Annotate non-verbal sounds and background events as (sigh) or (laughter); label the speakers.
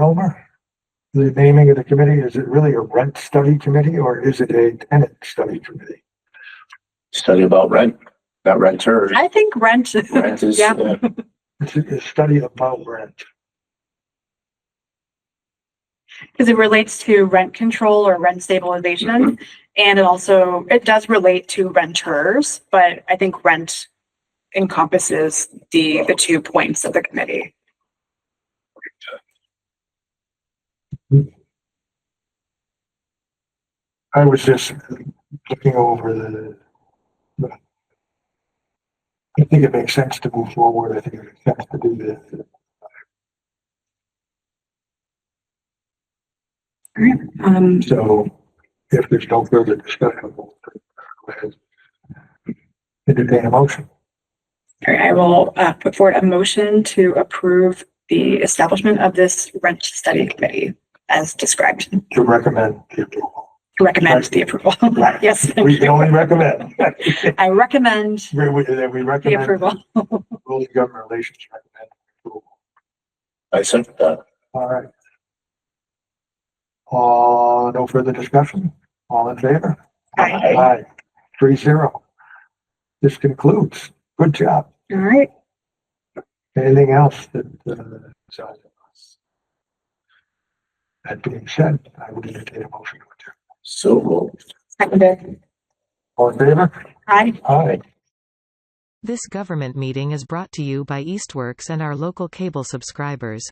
Speaker 1: Romer? The naming of the committee, is it really a rent study committee or is it a tenant study committee?
Speaker 2: study about rent, not renters.
Speaker 3: I think rent.
Speaker 2: Rent is,
Speaker 3: Yeah.
Speaker 2: uh,
Speaker 1: It's a a study about rent.
Speaker 3: because it relates to rent control or rent stabilization. And it also, it does relate to renters, but I think rent encompasses the, the two points of the committee.
Speaker 1: I was just looking over the. the- I think it makes sense to move forward. I think it makes sense to do this.
Speaker 3: Um,
Speaker 1: So if there's no further discussion. we'll go ahead. Entertain a motion.
Speaker 3: all right, I will, uh, put forward a motion to approve the establishment of this rent study committee as described,
Speaker 1: to recommend the approval.
Speaker 3: recommend the approval. (laughs) Yes,
Speaker 1: We can only recommend. (laughs)
Speaker 3: I recommend
Speaker 1: We, we, that we
Speaker 3: the
Speaker 1: recommend.
Speaker 3: approval.
Speaker 1: Rules of government relations recommend approval.
Speaker 2: I said that.
Speaker 1: All right. Uh, no further discussion? All in favor?
Speaker 3: Aye.
Speaker 2: Aye.
Speaker 1: Aye. Three zero. This concludes. Good job.
Speaker 3: All right,
Speaker 1: Anything else that, uh, is on us? That being said, I would entertain a motion to adjourn.
Speaker 2: So moved.
Speaker 3: seconded.
Speaker 1: All in favor?
Speaker 3: Aye.
Speaker 1: Aye.
Speaker 4: This government meeting is brought to you by Eastworks and our local cable subscribers.